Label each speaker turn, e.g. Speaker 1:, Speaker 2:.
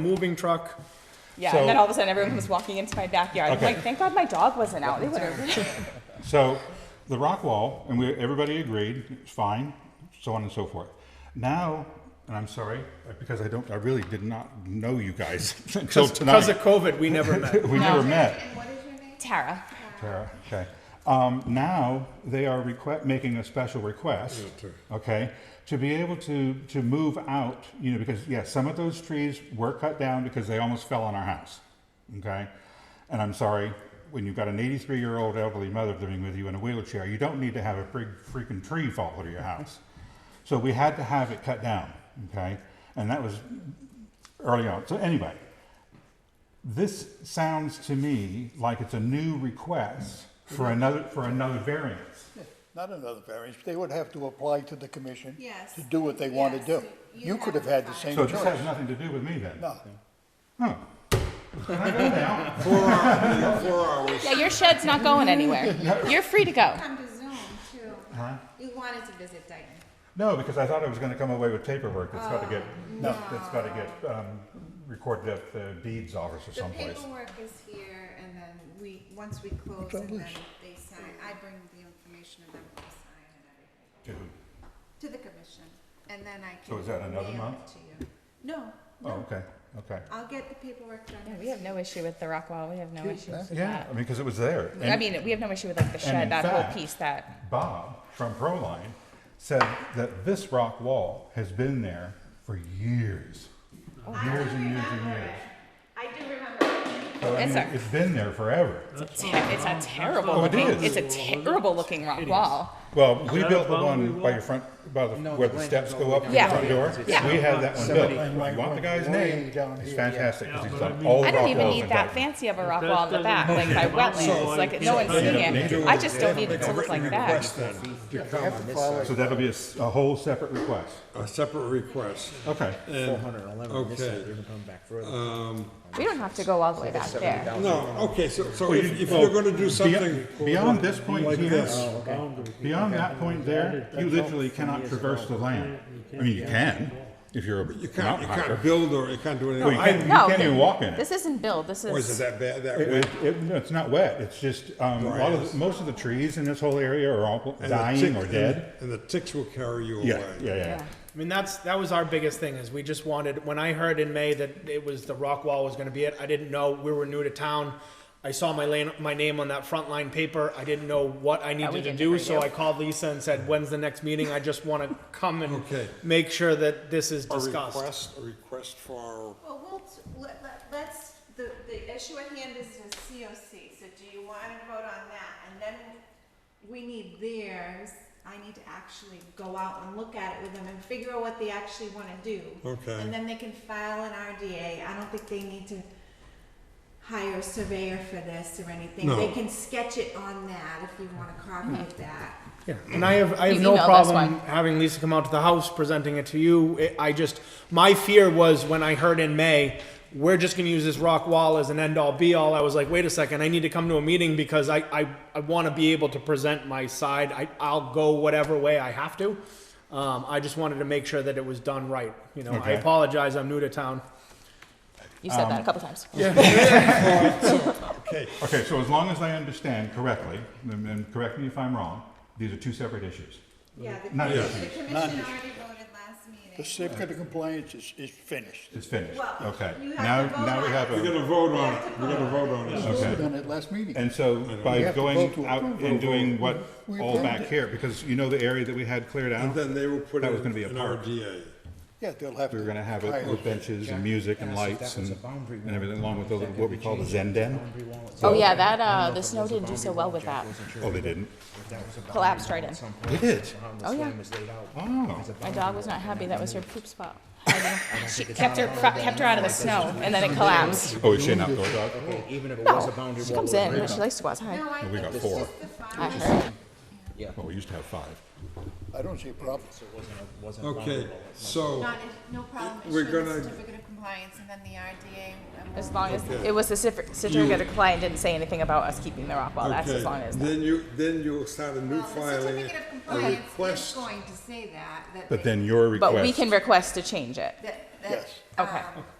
Speaker 1: moving truck.
Speaker 2: Yeah,
Speaker 3: So-
Speaker 2: and then all of a sudden everyone was walking into my backyard.
Speaker 3: Okay.
Speaker 2: I'm like, thank God my dog wasn't out. They would have.
Speaker 3: So the rock wall, and we, everybody agreed, it's fine, so on and so forth. Now, and I'm sorry, because I don't, I really did not know you guys until
Speaker 1: Because of
Speaker 3: tonight.
Speaker 1: COVID, we never met.
Speaker 3: We never met,
Speaker 4: And what is your name?
Speaker 2: Tara.
Speaker 3: Tara, okay. Um, now, they are requ- making a special request, okay, to be able to, to move out, you know, because, yeah, some of those trees were cut down because they almost fell on our house, okay? And I'm sorry, when you've got an 83-year-old elderly mother living with you in a wheelchair, you don't need to have a big freaking tree fall over your house. So we had to have it cut down, okay? And that was early on. So anyway, this sounds to me like it's a new request for another, for another variance.
Speaker 5: Not another variance, they would have to apply to the commission.
Speaker 4: Yes.
Speaker 5: To do what they want to
Speaker 4: Yes,
Speaker 5: do.
Speaker 4: you
Speaker 5: You could have had the same
Speaker 3: So
Speaker 5: choice.
Speaker 3: this has nothing to do with me then?
Speaker 5: No.
Speaker 3: Huh. Can I go now?
Speaker 2: Yeah, your shed's not going anywhere. You're free to go.
Speaker 4: Come to Zoom too.
Speaker 3: Uh-huh.
Speaker 4: You wanted to visit Dayton.
Speaker 3: No, because I thought I was gonna come away with paperwork that's gotta get, that's gotta get, um, recorded at the deeds office or
Speaker 4: The
Speaker 3: someplace.
Speaker 4: paperwork is here and then we, once we close and then they sign, I bring the information and then we sign and everything
Speaker 3: Did we-
Speaker 4: to the commission. And then I can.
Speaker 3: So is that another
Speaker 4: mail
Speaker 3: month?
Speaker 4: it To you. No,
Speaker 3: Oh, okay, okay.
Speaker 4: I'll get the paperwork done.
Speaker 2: Yeah, we have no issue with the rock wall. We have no issues with
Speaker 3: Yeah,
Speaker 2: that.
Speaker 3: I mean, because it was there.
Speaker 2: I
Speaker 3: And-
Speaker 2: mean, we have no issue with like the
Speaker 3: in
Speaker 2: shed, that whole
Speaker 3: fact-
Speaker 2: piece. That
Speaker 3: Bob from Proline said that this rock wall has been there for years. Years and years and years.
Speaker 4: I do remember.
Speaker 3: So, I
Speaker 2: Yes,
Speaker 3: mean,
Speaker 2: sir.
Speaker 3: it's been there forever.
Speaker 2: it's a terrible
Speaker 3: Oh, it
Speaker 2: looking. it's
Speaker 3: is.
Speaker 2: a terrible looking rock wall.
Speaker 3: Well, we
Speaker 6: that
Speaker 3: built
Speaker 6: a
Speaker 3: the
Speaker 6: boundary
Speaker 3: one
Speaker 6: wall?
Speaker 3: by your front, by the,
Speaker 7: No,
Speaker 3: where
Speaker 7: the
Speaker 3: the
Speaker 7: land
Speaker 3: steps
Speaker 7: is
Speaker 3: go
Speaker 7: all
Speaker 3: up
Speaker 7: the
Speaker 3: to
Speaker 7: way
Speaker 3: the
Speaker 2: down
Speaker 3: front
Speaker 2: here.
Speaker 3: door.
Speaker 2: Yeah.
Speaker 3: We had that one built.
Speaker 7: Somebody-
Speaker 3: If you want the guy's
Speaker 5: Way
Speaker 3: name,
Speaker 5: down
Speaker 3: it's
Speaker 5: here.
Speaker 3: fantastic, because
Speaker 6: Yeah,
Speaker 3: he's
Speaker 6: but I
Speaker 3: done
Speaker 6: mean-
Speaker 3: all
Speaker 2: I
Speaker 3: rock
Speaker 2: don't even
Speaker 3: walls in
Speaker 2: need that
Speaker 3: Dayton.
Speaker 2: fancy of a rock
Speaker 6: that
Speaker 2: wall in the
Speaker 6: doesn't
Speaker 2: back, like
Speaker 6: make
Speaker 2: by
Speaker 6: it possible,
Speaker 2: wetlands.
Speaker 6: I
Speaker 2: Like no
Speaker 6: can't
Speaker 2: one's
Speaker 6: find
Speaker 2: seeing
Speaker 3: it.
Speaker 2: it.
Speaker 3: Nature
Speaker 2: I
Speaker 3: was
Speaker 2: just
Speaker 7: They
Speaker 2: don't
Speaker 7: have to
Speaker 2: need it
Speaker 7: make
Speaker 2: to
Speaker 7: a
Speaker 2: look
Speaker 7: written
Speaker 2: like that.
Speaker 7: request then to
Speaker 5: They
Speaker 7: come
Speaker 5: have
Speaker 7: on
Speaker 5: to
Speaker 7: this
Speaker 5: file
Speaker 7: side.
Speaker 3: So that'll be a, s- a whole separate request.
Speaker 7: A separate request.
Speaker 3: Okay.
Speaker 7: Four hundred and eleven on this
Speaker 6: okay.
Speaker 7: side, you're gonna come back further.
Speaker 2: We don't have to go all the way back there.
Speaker 7: No, okay, so, so if if you're gonna do something.
Speaker 3: Beyond this point
Speaker 7: like
Speaker 3: here,
Speaker 7: this. Oh, okay.
Speaker 3: Beyond that point there, you literally cannot traverse the land. I mean, you can, if you're a
Speaker 7: You can't,
Speaker 3: mountain
Speaker 7: you can't
Speaker 3: hiker.
Speaker 7: build or you can't do
Speaker 3: Well, you
Speaker 7: anything.
Speaker 3: can't, you
Speaker 2: No,
Speaker 3: can't even walk in
Speaker 2: This
Speaker 3: it.
Speaker 2: isn't build. This
Speaker 7: Or is it
Speaker 2: is.
Speaker 7: that bad, that
Speaker 3: It-
Speaker 7: way?
Speaker 3: it- it- no, it's not wet, it's just, um, a lot of, the- most of the trees in this whole area are all
Speaker 7: And the
Speaker 3: dying
Speaker 7: tick-
Speaker 3: or
Speaker 7: and-
Speaker 3: dead.
Speaker 7: And the ticks will carry you away.
Speaker 3: Yeah, yeah, yeah.
Speaker 2: Yeah.
Speaker 1: I mean, that's, that was our biggest thing is we just wanted, when I heard in May that it was the rock wall was gonna be it, I didn't know, we were new to town. I saw my lane, my name on that front line paper. I didn't know what I
Speaker 2: we
Speaker 1: needed to
Speaker 2: didn't
Speaker 1: do,
Speaker 2: agree
Speaker 1: so
Speaker 2: to.
Speaker 1: I called Lisa and said, when's the next meeting? I just wanna come and
Speaker 7: Okay.
Speaker 1: make sure that this is
Speaker 7: A
Speaker 1: discussed.
Speaker 7: request, a request for,
Speaker 4: Well, we'll, t- let, let- let's, the, the issue at hand is the COC, so do you wanna vote on that? And then we need theirs, I need to actually go out and look at it with them and figure out what they actually wanna do.
Speaker 7: Okay.
Speaker 4: And then they can file an RDA, I don't think they need to hire a surveyor for this or anything.
Speaker 7: No.
Speaker 4: They can sketch it on that if you want a copy of that.
Speaker 1: Yeah, and I have, I have
Speaker 2: You
Speaker 1: no
Speaker 2: emailed us
Speaker 1: problem
Speaker 2: one.
Speaker 1: having Lisa come out to the house, presenting it to you. It- I just, my fear was when I heard in May, we're just gonna use this rock wall as an end all be all, I was like, wait a second, I need to come to a meeting because I, I, I wanna be able to present my side. I, I'll go whatever way I have to. Um, I just wanted to make sure that it was done right, you know, I
Speaker 3: Okay.
Speaker 1: apologize, I'm new to town.
Speaker 2: You said
Speaker 3: um,
Speaker 2: that a couple times.
Speaker 7: okay,
Speaker 3: Okay, so as long as I understand correctly, and, and correct me if I'm wrong, these are two separate issues.
Speaker 4: Yeah, the
Speaker 3: Not
Speaker 4: commission,
Speaker 3: issues.
Speaker 4: the commission already voted last meeting.
Speaker 5: The certificate of compliance is, is finished.
Speaker 3: It's finished,
Speaker 4: Well,
Speaker 3: okay.
Speaker 4: you have
Speaker 3: Now,
Speaker 4: to vote
Speaker 3: now we
Speaker 4: on
Speaker 3: have
Speaker 4: it.
Speaker 3: a,
Speaker 7: we're gonna vote on it, we're gonna vote on it.
Speaker 3: okay.
Speaker 5: Done at last meeting.
Speaker 3: And so
Speaker 5: We
Speaker 3: by
Speaker 5: have to
Speaker 3: going
Speaker 5: vote to
Speaker 3: out
Speaker 5: approve
Speaker 3: and
Speaker 5: or
Speaker 3: doing what,
Speaker 5: vote. We
Speaker 3: all
Speaker 5: approved
Speaker 3: back
Speaker 5: it.
Speaker 3: here, because you know the area that we had cleared out?
Speaker 7: And then they will put
Speaker 3: That
Speaker 7: in
Speaker 3: was gonna be a
Speaker 7: an
Speaker 3: park.
Speaker 7: RDA.
Speaker 5: Yeah, they'll have to.
Speaker 3: We were gonna have it
Speaker 5: hire-
Speaker 3: with benches and music and
Speaker 7: And I said
Speaker 3: lights
Speaker 7: that was
Speaker 3: and,
Speaker 7: a boundary
Speaker 3: and
Speaker 7: wall.
Speaker 3: everything along with the, what we call the Zen Den.
Speaker 2: Oh yeah, that uh, the snow didn't do so well with that.
Speaker 3: Oh, they didn't?
Speaker 2: Collapsed right in.
Speaker 3: They did?
Speaker 2: Oh yeah.
Speaker 3: Oh,
Speaker 2: My dog was not happy. That was her poop spot. she kept her fro- kept her out of the snow, and then it collapsed.
Speaker 3: oh, is she an outdoor dog?
Speaker 7: Even if it
Speaker 2: was a boundary Oh. She comes in. She likes to go outside.
Speaker 4: No, I
Speaker 3: we
Speaker 4: think
Speaker 3: got
Speaker 4: it's
Speaker 3: four.
Speaker 4: just the
Speaker 2: I
Speaker 4: final.
Speaker 2: heard.
Speaker 3: Well, we used to have five.
Speaker 5: I don't see a problem.
Speaker 7: Okay, so,
Speaker 4: Not, if- no problem,
Speaker 7: We're
Speaker 4: issue the
Speaker 7: gonna-
Speaker 4: certificate of compliance and then the RDA. and
Speaker 2: As
Speaker 4: um, we'll-
Speaker 2: long as it was the certif- certificate of compliance didn't say anything about us keeping the rock wall. That's as long
Speaker 7: okay,
Speaker 2: as.
Speaker 7: then you, then you'll start a new
Speaker 4: Well, the
Speaker 7: filing,
Speaker 4: certificate of
Speaker 7: a
Speaker 4: compliance is
Speaker 7: request.
Speaker 4: going to say that, that.
Speaker 3: But
Speaker 4: they-
Speaker 3: then your
Speaker 2: But we
Speaker 3: request,
Speaker 2: can request to change it.
Speaker 4: That, that.
Speaker 5: Yes.
Speaker 2: Okay.
Speaker 4: um,